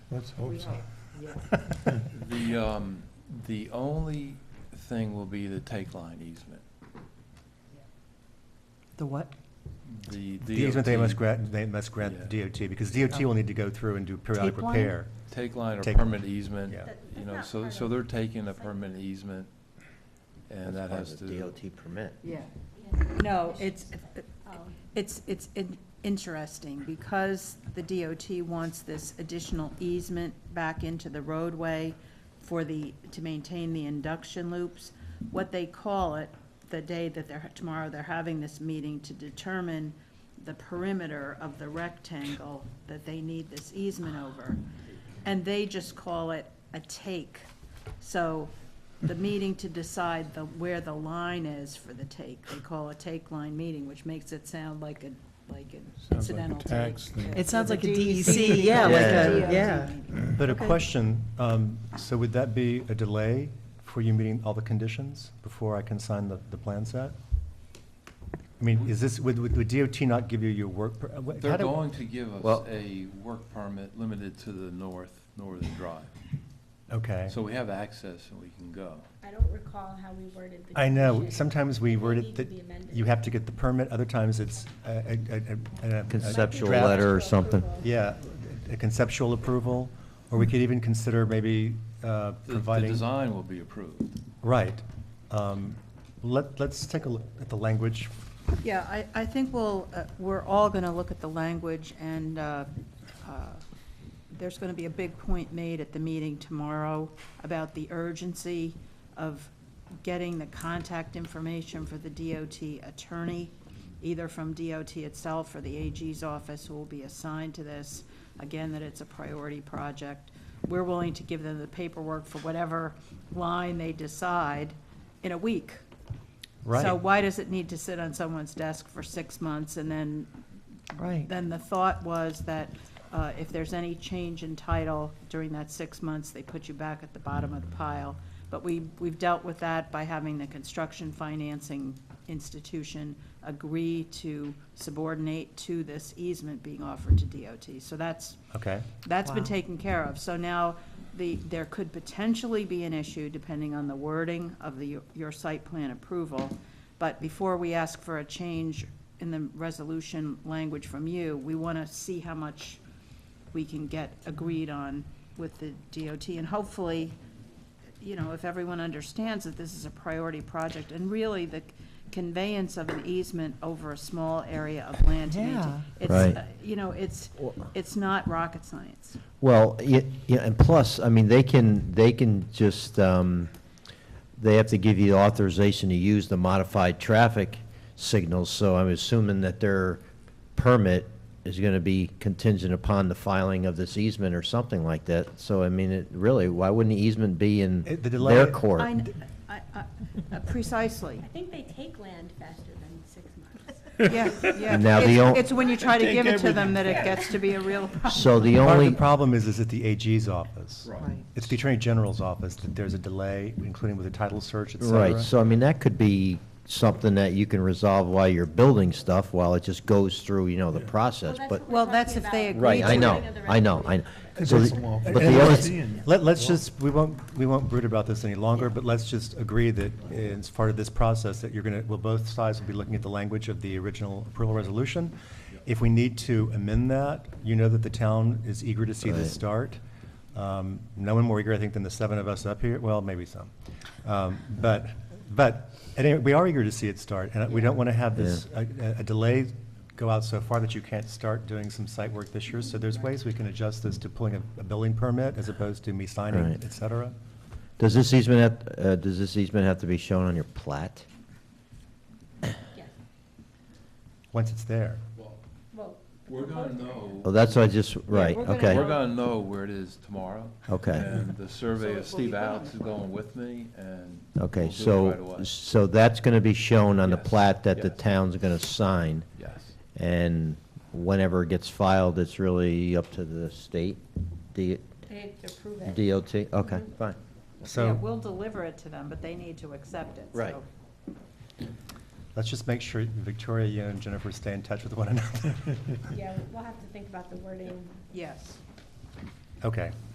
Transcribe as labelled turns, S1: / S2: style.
S1: Let's
S2: We
S1: hope so.
S2: hope, yeah.
S3: The, um, the only thing will be the take line easement.
S4: The what?
S3: The
S5: The easement they must
S3: DOT
S5: grant, they must grant the DOT, because DOT will need to go through and do periodic
S4: Tape line?
S5: repair.
S3: Take line or
S5: Take-
S3: permit easement,
S5: Yeah.
S2: That-
S3: you
S2: that's
S3: know,
S2: not
S3: so,
S2: part
S3: so
S2: of-
S3: they're taking a permit easement, and that has
S6: That's part
S3: to,
S6: of the DOT permit.
S2: Yeah,
S4: No, it's,
S7: Oh.
S4: it's, it's in- interesting, because the DOT wants this additional easement back into the roadway for the, to maintain the induction loops, what they call it, the day that they're, tomorrow, they're having this meeting to determine the perimeter of the rectangle that they need this easement over. And they just call it a take. So the meeting to decide the, where the line is for the take, they call a take line meeting, which makes it sound like a, like an
S1: like a
S4: incidental take.
S1: tax thing.
S8: It sounds
S4: For
S8: like a
S4: the
S8: DEC, yeah,
S6: like
S8: a-
S4: DOT
S8: yeah.
S4: meeting.
S5: But a
S4: Okay.
S5: question, um, so would that be a delay for you meeting all the conditions before I can sign the, the plan set? I mean, is this, would, would would DOT not give you your work? per- uh, what- how
S3: they're
S5: do-
S3: going to give us
S6: Well-
S3: a work permit limited to the north, northern drive.
S5: Okay.
S3: So we have access and we can go.
S7: I don't recall how we worded the.
S5: I know,
S7: condition.
S5: sometimes we
S7: They
S5: word
S7: need
S5: it
S7: to
S5: that
S7: be amended.
S5: you have to get the permit, other times it's a, a- a- a- a- a
S6: Conceptual
S5: draft.
S6: letter or something.
S5: Yeah, a conceptual approval, or we could even consider maybe uh,
S3: The- The
S5: providing.
S3: design will be approved.
S5: Right. Um, Let, let's take a look at the language.
S4: Yeah, I, I think we'll, uh, we're all going to look at the language, and uh, uh, there's going to be a big point made at the meeting tomorrow about the urgency of getting the contact information for the DOT attorney, either from DOT itself or the AG's office who will be assigned to this, again, that it's a priority project. We're willing to give them the paperwork for whatever line they decide in a week. So
S5: Right.
S4: why does it need to sit on someone's desk for six months and then?
S8: Right.
S4: Then the thought was that uh, if there's any change in title during that six months, they put you back at the bottom of the pile. But we, we've dealt with that by having the construction financing institution agree to subordinate to this easement being offered to DOT. So that's,
S5: Okay.
S4: that's been
S8: Wow.
S4: taken care of. So now, the, there could potentially be an issue depending on the wording of the, your site plan approval. But before we ask for a change in the resolution language from you, we want to see how much we can get agreed on with the DOT. And hopefully, you know, if everyone understands that this is a priority project, and really the conveyance of an easement over a small area of land to maintain.
S8: Yeah.
S4: It's,
S6: Right.
S4: uh, you know, it's,
S6: Well-
S4: it's not rocket science.
S6: Well, yeah, yeah, and plus, I mean, they can, they can just, um, they have to give you authorization to use the modified traffic signals, so I'm assuming that their permit is gonna be contingent upon the filing of this easement or something like that. So, I mean, it, really, why wouldn't the easement be in
S5: It- the
S6: their
S5: delay-
S6: court?
S4: I kn- I- I- uh, Precisely,
S7: I think they take land faster than six
S4: yeah,
S7: months.
S4: yeah.
S6: Now, the
S4: It's-
S6: on-
S4: It's when you try to
S1: Take
S4: give it to them
S1: everything.
S4: that it gets to be a real problem.
S6: So the
S5: Part of the
S6: only,
S5: problem is, is at the AG's office.
S8: Right.
S5: It's the Attorney General's office that there's a delay, including with the title search, et cetera.
S6: right, so I mean, that could be something that you can resolve while you're building stuff, while it just goes through, you know, the process,
S7: that's
S6: but.
S7: what we're
S4: Well,
S7: talking
S4: that's if they
S7: about.
S4: agree
S6: Right,
S4: to
S6: I
S4: it.
S6: know, I know, I know. So
S1: That's a
S6: the-
S1: law.
S6: but
S5: And-
S6: the
S5: and
S6: only-
S5: let's- Let, let's just, we won't, we won't brood about this any longer, but let's just agree that it's part of this process that you're gonna, well, both sides will be looking at the language of the original approval resolution. If we need to amend that, you know that the town is eager to see
S6: Right.
S5: this start. Um, no one more eager, I think, than the seven of us up here, well, maybe some. Um, but, but, at any- we are eager to see it start, and we don't wanna have this, a, a- a delay go out so far that you can't start doing some site work this year. So there's ways we can adjust this to pulling a, a building permit as opposed to me signing,
S6: Right.
S5: et cetera.
S6: Does this easement, have- uh, does this easement have to be shown on your plat?
S7: Yes,
S5: once it's there.
S7: well. the
S3: We're gonna
S7: proposed area.
S3: know.
S6: Oh, that's what I just, right,
S4: we're gonna
S6: okay.
S3: We're gonna know where it is tomorrow.
S6: Okay.
S3: And
S4: So
S3: the
S4: it
S3: surveyor,
S4: will be
S3: Steve
S4: done.
S3: Alex, is going with me, and.
S6: Okay,
S3: we'll do it right
S6: so,
S3: away.
S6: so that's gonna be shown on the
S3: Yes,
S6: plat that the
S3: yes.
S6: town's gonna sign,
S3: Yes.
S6: and whenever it gets filed, it's really up to the state, D-
S7: They have to approve it.
S6: DOT, okay, fine.
S4: Yeah,
S5: So
S4: we'll deliver it to them, but they need to accept it, so.
S6: Right.
S5: let's just make sure Victoria, you and Jennifer stay in touch with one another.
S7: Yeah, we'll have to think about the wording.
S4: Yes.
S5: Okay.